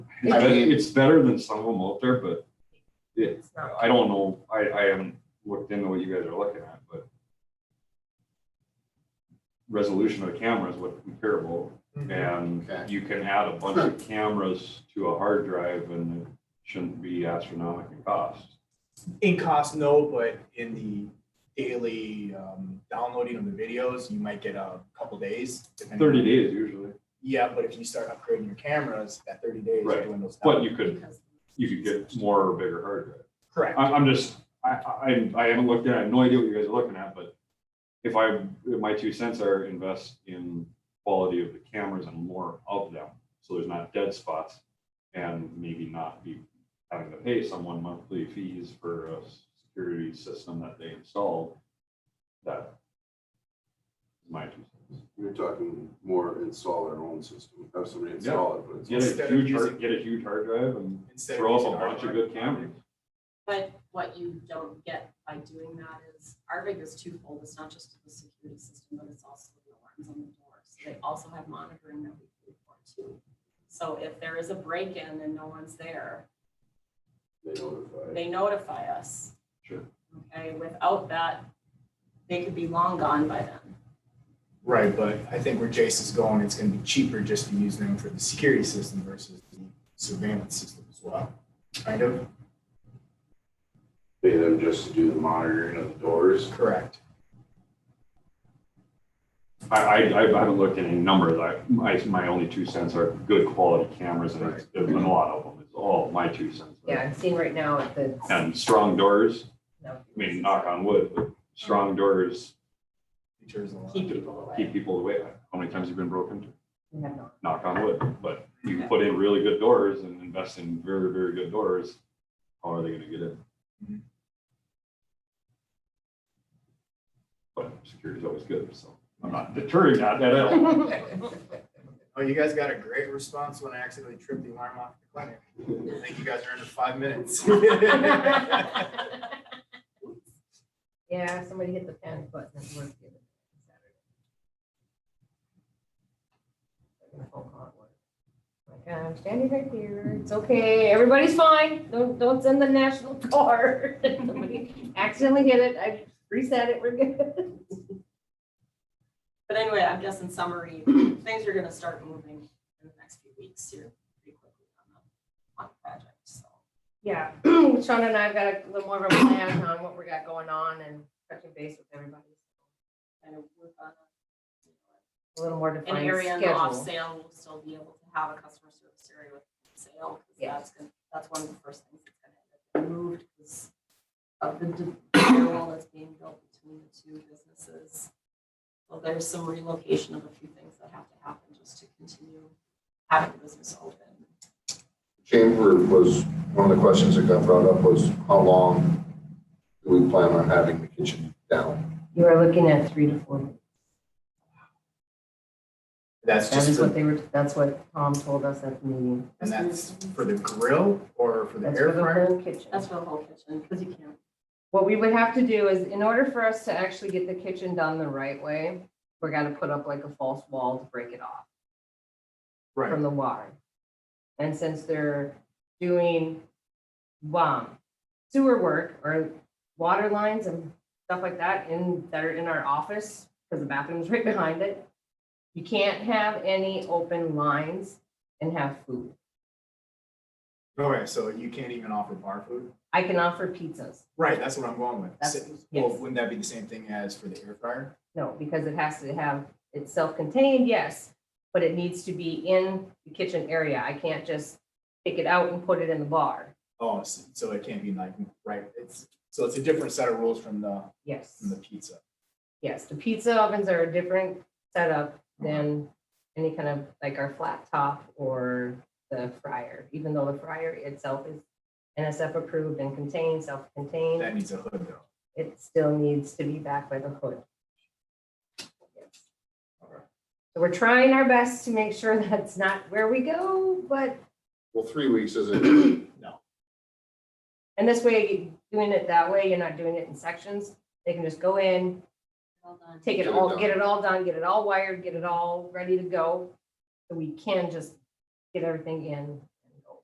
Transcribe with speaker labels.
Speaker 1: I
Speaker 2: I
Speaker 1: mean,
Speaker 2: it's better than some of them out there, but it,
Speaker 3: It's not.
Speaker 2: I don't know, I, I haven't looked into what you guys are looking at, but resolution of the camera is what we care about, and
Speaker 1: Okay.
Speaker 2: you can add a bunch of cameras to a hard drive and it shouldn't be astronomical cost.
Speaker 4: In cost, no, but in the daily um, downloading of the videos, you might get a couple days. depending-
Speaker 2: Thirty days usually,
Speaker 4: Yeah, but if you start upgrading your cameras, that thirty days
Speaker 2: Right,
Speaker 4: dwindles down.
Speaker 2: but you could, you could get more or bigger hard drive.
Speaker 4: Correct.
Speaker 2: I, I'm just, I, I, I haven't looked at, it. I have no idea what you guys are looking at, but if I, if my two cents are invest in quality of the cameras and more of them, so there's not dead spots. And maybe not be having to pay someone monthly fees for a security system that they installed. That. is My two cents.
Speaker 5: You're talking more install our own system, have somebody install it, but it's.
Speaker 2: Get a
Speaker 4: Instead of
Speaker 2: huge, hard-
Speaker 4: using-
Speaker 2: get a huge hard drive and
Speaker 4: Instead of
Speaker 2: throw up
Speaker 4: using
Speaker 2: a
Speaker 4: our
Speaker 2: bunch of
Speaker 4: hard
Speaker 2: good
Speaker 4: drive.
Speaker 2: cameras.
Speaker 3: But what you don't get by doing that is RVIC is twofold. It's not just the security system, but it's also the alarms on the doors. They also have monitoring that we can report to. So if there is a break-in and no one's there,
Speaker 5: They notify.
Speaker 3: they notify us.
Speaker 2: Sure.
Speaker 3: Okay, without that, they could be long gone by then.
Speaker 4: Right, but I think where Jace is going, it's gonna be cheaper just to use them for the security system versus the surveillance system as well. Kind of?
Speaker 5: Pay them just to do the monitoring of the doors.
Speaker 4: Correct.
Speaker 2: I, I, I haven't looked at any numbers. I, my, my only two cents are good quality cameras and it's- there's been a lot of them. It's all my two cents.
Speaker 6: Yeah, I'm seeing right now at the.
Speaker 2: And strong doors,
Speaker 6: no.
Speaker 2: I mean, knock on wood, but strong doors
Speaker 4: Features a lot.
Speaker 3: Keep people away.
Speaker 2: keep people away. How many times have you been broken into?
Speaker 6: We have not.
Speaker 2: Knock on wood, but you put in really good doors and invest in very, very good doors. How are they gonna get in?
Speaker 4: Mhm.
Speaker 2: But security's always good, so I'm not deterring that at all.
Speaker 4: Oh, you guys got a great response when I accidentally tripped the alarm off the clinic. I think you guys are under five minutes.
Speaker 6: Yeah, somebody hit the panic button at work the other day, Saturday. I got a phone call at work. Like, I'm standing right here, it's okay, everybody's fine, don't, don't send the national guard. Somebody Accidentally hit it, I reset it, we're good.
Speaker 3: But anyway, I guess in summary, things are gonna start moving in the next few weeks here pretty quickly on the, on the project, so.
Speaker 6: Yeah, Sean and I've got a little more of a plan on what we got going on and touching base with everybody.
Speaker 3: Kind of work on a-
Speaker 6: A little more
Speaker 3: An
Speaker 6: defined
Speaker 3: area in the off
Speaker 6: schedule.
Speaker 3: sale, we'll still be able to have a customer service area with sale. 'cause
Speaker 6: Yeah.
Speaker 3: That's gonna, that's one of the first things that's gonna get moved because of the di- wall that's being built between the two businesses. Well, there's some relocation of a few things that have to happen just to continue having the business open.
Speaker 5: Chamber was, one of the questions that got brought up was how long do we plan on having the kitchen down?
Speaker 6: You are looking at three to four weeks.
Speaker 4: That's
Speaker 6: That
Speaker 4: just
Speaker 6: is what
Speaker 4: for,
Speaker 6: they were, that's what Tom told us at the meeting.
Speaker 4: and that's for the grill or for the
Speaker 6: That's
Speaker 4: air
Speaker 6: for the
Speaker 4: fryer?
Speaker 6: whole kitchen.
Speaker 3: That's for the whole kitchen, because you can't.
Speaker 6: What we would have to do is, in order for us to actually get the kitchen done the right way, we're gonna put up like a false wall to break it off
Speaker 4: Right,
Speaker 6: from the water. And since they're doing, um, sewer work or water lines and stuff like that in, that are in our office, because the bathroom's right behind it, you can't have any open lines and have food.
Speaker 4: Oh, okay, so you can't even offer bar food?
Speaker 6: I can offer pizzas.
Speaker 4: Right, that's what I'm going with.
Speaker 6: That's-
Speaker 4: So- Well,
Speaker 6: yes.
Speaker 4: wouldn't that be the same thing as for the air fryer?
Speaker 6: No, because it has to have, it's self-contained, yes, but it needs to be in the kitchen area. I can't just pick it out and put it in the bar.
Speaker 4: Oh, s- so it can't be like, right, it's, so it's a different set of rules from the,
Speaker 6: Yes,
Speaker 4: from the pizza.
Speaker 6: yes. The pizza ovens are a different setup than any kind of like our flat top or the fryer, even though the fryer itself is NSF approved and contained, self-contained.
Speaker 4: That needs a hood though.
Speaker 6: it still needs to be back by the hood. So we're trying our best to make sure that's not where we go, but,
Speaker 5: Well, three weeks isn't,
Speaker 6: and this way, doing it that way, you're not doing it in sections. They can just go in,
Speaker 3: Well done.
Speaker 6: take it
Speaker 5: Get it
Speaker 6: all,
Speaker 5: done.
Speaker 6: get it all done, get it all wired, get it all ready to go. So we can just get everything in